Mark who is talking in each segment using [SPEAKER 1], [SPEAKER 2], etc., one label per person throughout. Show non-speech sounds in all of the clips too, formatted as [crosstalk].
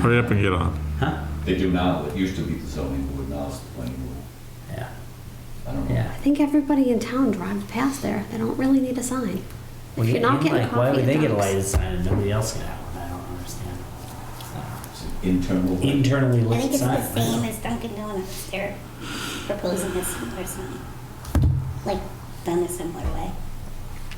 [SPEAKER 1] Hurry up and get on.
[SPEAKER 2] Huh?
[SPEAKER 3] They do now, it used to be the zoning board, now it's the planning board.
[SPEAKER 2] Yeah,
[SPEAKER 3] I don't know.
[SPEAKER 2] yeah.
[SPEAKER 4] I think everybody in town drives past there. They don't really need a sign.
[SPEAKER 2] Well,
[SPEAKER 4] If you're not getting
[SPEAKER 2] Why
[SPEAKER 4] coffee
[SPEAKER 2] would they
[SPEAKER 4] at
[SPEAKER 2] get a
[SPEAKER 4] Dunk's.
[SPEAKER 2] lighted sign and nobody else can have one? I don't understand. Uh,
[SPEAKER 3] It's an Internal.
[SPEAKER 2] Internally
[SPEAKER 5] I
[SPEAKER 2] lit
[SPEAKER 5] think it's
[SPEAKER 2] sign.
[SPEAKER 5] the same as Dunkin' Donuts. They're proposing a similar sign, like done a similar way.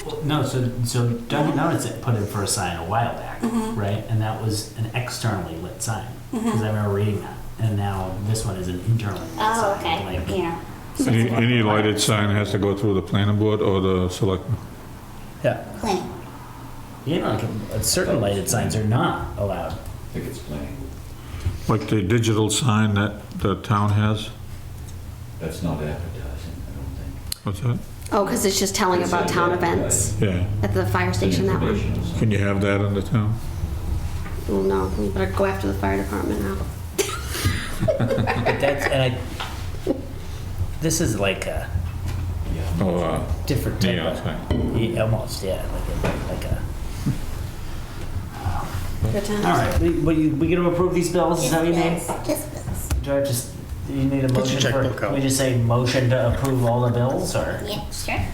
[SPEAKER 2] Well, No, so, so Dunkin' Donuts had put in for a sign a while back,
[SPEAKER 5] Mhm.
[SPEAKER 2] right? And that was an externally lit sign,
[SPEAKER 5] Mm-hmm.
[SPEAKER 2] because I remember reading that. And now this one is an internally lit
[SPEAKER 5] Oh,
[SPEAKER 2] sign.
[SPEAKER 5] okay.
[SPEAKER 2] like-
[SPEAKER 5] Yeah.
[SPEAKER 1] Any, any lighted sign has to go through the planning board or the selectmen.
[SPEAKER 2] Yeah,
[SPEAKER 5] Planning.
[SPEAKER 2] you know, like uh, certain lighted signs are not allowed.
[SPEAKER 3] I think it's planning board.
[SPEAKER 1] Like the digital sign that the town has.
[SPEAKER 3] That's not advertising, I don't think.
[SPEAKER 1] What's that?
[SPEAKER 4] Oh, because it's just telling
[SPEAKER 3] It's
[SPEAKER 4] about
[SPEAKER 3] a-
[SPEAKER 4] town
[SPEAKER 3] yeah,
[SPEAKER 4] events
[SPEAKER 1] Yeah.
[SPEAKER 4] at the fire station, that one.
[SPEAKER 3] Informational sign.
[SPEAKER 1] Can you have that in the town?
[SPEAKER 4] Oh, no, we better go after the fire department now.
[SPEAKER 2] But that's, and I, this is like a
[SPEAKER 3] Yeah.
[SPEAKER 1] Oh, uh,
[SPEAKER 2] different type
[SPEAKER 1] neon
[SPEAKER 2] of,
[SPEAKER 1] sign.
[SPEAKER 2] yeah, almost, yeah, like a, like a.
[SPEAKER 4] Good times.
[SPEAKER 2] All [laughs] right, we, we, we gonna approve these bills, is that what you mean?
[SPEAKER 5] Just bills. Just bills.
[SPEAKER 2] Do I just, do you need a motion for?
[SPEAKER 6] checkbook out.
[SPEAKER 2] We just say motion to approve all the bills, or?
[SPEAKER 5] Yeah, sure.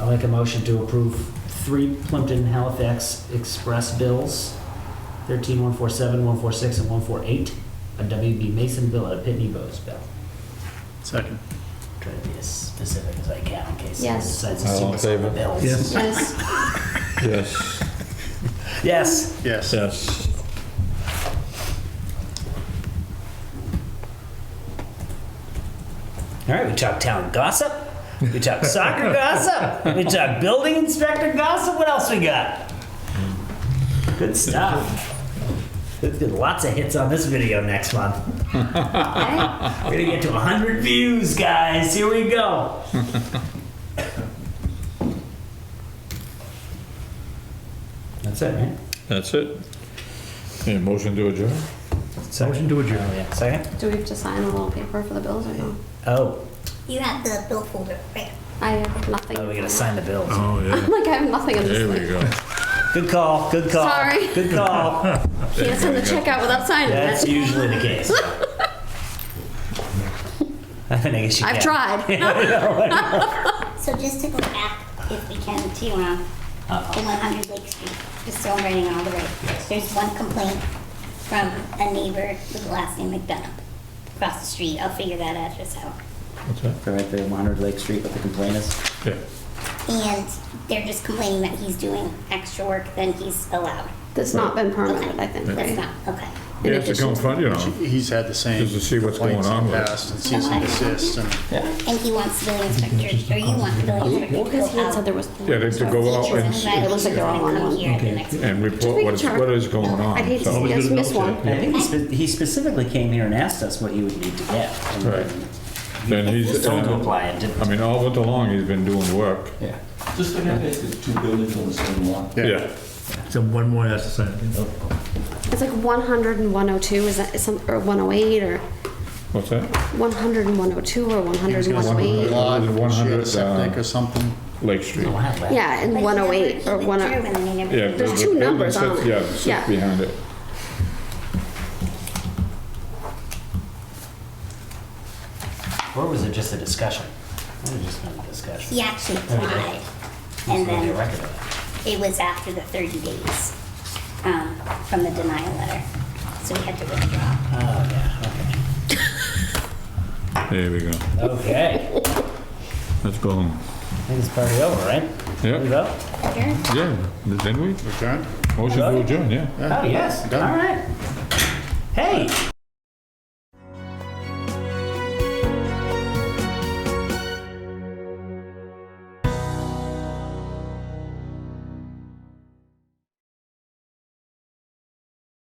[SPEAKER 2] I'll make a motion to approve three Plimpton Halifax Express bills, 13147, 146, and 148, a WB Mason bill, and a Pitney Bowes bill.
[SPEAKER 6] Second.
[SPEAKER 2] Try to be as specific as I can in case someone
[SPEAKER 4] Yes.
[SPEAKER 2] decides to
[SPEAKER 1] All in
[SPEAKER 2] sue us on the
[SPEAKER 1] favor?
[SPEAKER 2] bills.
[SPEAKER 6] Yes.
[SPEAKER 4] Yes,
[SPEAKER 1] Yes.
[SPEAKER 2] Yes,
[SPEAKER 6] Yes.
[SPEAKER 1] Yes.
[SPEAKER 2] all right, we talked town gossip, we
[SPEAKER 6] [laughs]
[SPEAKER 2] talked soccer gossip, we talked building inspector gossip, what else we got? Good stuff. Let's get lots of hits on this video next month.
[SPEAKER 6] [laughs]
[SPEAKER 4] okay.
[SPEAKER 2] We're gonna get to 100 views, guys. Here we go. That's it, right?
[SPEAKER 1] That's it. Yeah, motion to adjourn?
[SPEAKER 6] Motion to adjourn.
[SPEAKER 2] Oh, yeah. Second?
[SPEAKER 4] Do we have to sign a little paper for the bills or no?
[SPEAKER 2] Oh,
[SPEAKER 5] You have the bill folder, right?
[SPEAKER 4] I have nothing.
[SPEAKER 2] oh, we gotta sign the bills.
[SPEAKER 1] Oh, yeah.
[SPEAKER 4] [laughs] Like, I have nothing in
[SPEAKER 1] There we
[SPEAKER 4] this thing.
[SPEAKER 1] go.
[SPEAKER 2] Good call, good call.
[SPEAKER 4] Sorry.
[SPEAKER 2] Good call.
[SPEAKER 4] Can't send the check out without signing
[SPEAKER 2] That's
[SPEAKER 4] it.
[SPEAKER 2] usually the case. I guess you
[SPEAKER 4] I've
[SPEAKER 2] can. [laughs]
[SPEAKER 4] tried.
[SPEAKER 5] So just to go back, if we can, to um, the 100 Lake Street, just so I'm writing all the right. There's one complaint from a neighbor with the last name McDonough across the street. I'll figure that address out.
[SPEAKER 1] What's that?
[SPEAKER 2] Right there, 100 Lake Street, what the complaint is.
[SPEAKER 1] Yeah.
[SPEAKER 5] And they're just complaining that he's doing extra work than he's allowed.
[SPEAKER 4] That's not been permitted, I think,
[SPEAKER 5] That's
[SPEAKER 4] right?
[SPEAKER 5] not, okay.
[SPEAKER 1] You have to come front, you know.
[SPEAKER 6] He's had the same.
[SPEAKER 1] Just to see what's
[SPEAKER 6] complaints
[SPEAKER 1] going on
[SPEAKER 6] in the
[SPEAKER 1] with it.
[SPEAKER 6] past And cease and desist and.
[SPEAKER 5] And he wants the inspector, or you want the inspector to go
[SPEAKER 4] Because he had said
[SPEAKER 5] out.
[SPEAKER 4] there was.
[SPEAKER 1] Yeah, they have to go out and,
[SPEAKER 5] Teachers
[SPEAKER 1] s-
[SPEAKER 5] and
[SPEAKER 4] It looks like they're all on
[SPEAKER 5] come
[SPEAKER 4] one.
[SPEAKER 5] here at the next meeting.
[SPEAKER 1] and report what is, what is going on.
[SPEAKER 4] I'd hate to
[SPEAKER 1] so.
[SPEAKER 4] see us miss one.
[SPEAKER 2] I think he, spe- he specifically came here and asked us what he would need to get. And
[SPEAKER 1] Right. Then
[SPEAKER 2] He was
[SPEAKER 1] he's,
[SPEAKER 2] told to
[SPEAKER 1] uh,
[SPEAKER 2] apply and didn't.
[SPEAKER 1] I mean, all winter long, he's been doing work.
[SPEAKER 2] Yeah.
[SPEAKER 3] Just like I said, it's two buildings on the same lot.
[SPEAKER 1] Yeah.
[SPEAKER 6] So one more has to sign.
[SPEAKER 4] It's like 100 and 102, is that, is some, or 108, or
[SPEAKER 1] What's that?
[SPEAKER 4] 100 and 102, or 100 and 108?
[SPEAKER 6] Lot,
[SPEAKER 1] One hundred, uh,
[SPEAKER 6] shit, septic or something.
[SPEAKER 1] Lake Street.
[SPEAKER 2] Oh, wow, that-
[SPEAKER 4] Yeah, and
[SPEAKER 5] But he
[SPEAKER 4] 108,
[SPEAKER 5] never-
[SPEAKER 4] or
[SPEAKER 5] he
[SPEAKER 4] 108.
[SPEAKER 5] withdrew and they never-
[SPEAKER 1] Yeah. the-
[SPEAKER 4] There's
[SPEAKER 1] the
[SPEAKER 4] two
[SPEAKER 1] building
[SPEAKER 4] numbers on
[SPEAKER 1] sits-
[SPEAKER 4] it.
[SPEAKER 1] Yeah, sits
[SPEAKER 4] Yeah.
[SPEAKER 1] behind it.
[SPEAKER 2] Or was it just a discussion? It was just a discussion.
[SPEAKER 5] He actually applied,
[SPEAKER 2] There's
[SPEAKER 5] and
[SPEAKER 2] gonna be a
[SPEAKER 5] then
[SPEAKER 2] record of
[SPEAKER 5] it was after the 30 days um, from the denial letter, so he had to withdraw.
[SPEAKER 2] it. Oh, yeah,
[SPEAKER 1] There we go.
[SPEAKER 2] okay. Okay,
[SPEAKER 1] Let's go home.
[SPEAKER 2] I think it's party over, right?
[SPEAKER 1] Yep.
[SPEAKER 2] We go?
[SPEAKER 5] Sure.
[SPEAKER 1] Yeah, didn't we?
[SPEAKER 6] Adjourn?
[SPEAKER 1] Motion to adjourn, yeah.
[SPEAKER 2] Oh, yes, all
[SPEAKER 6] Done.
[SPEAKER 2] right. Hey,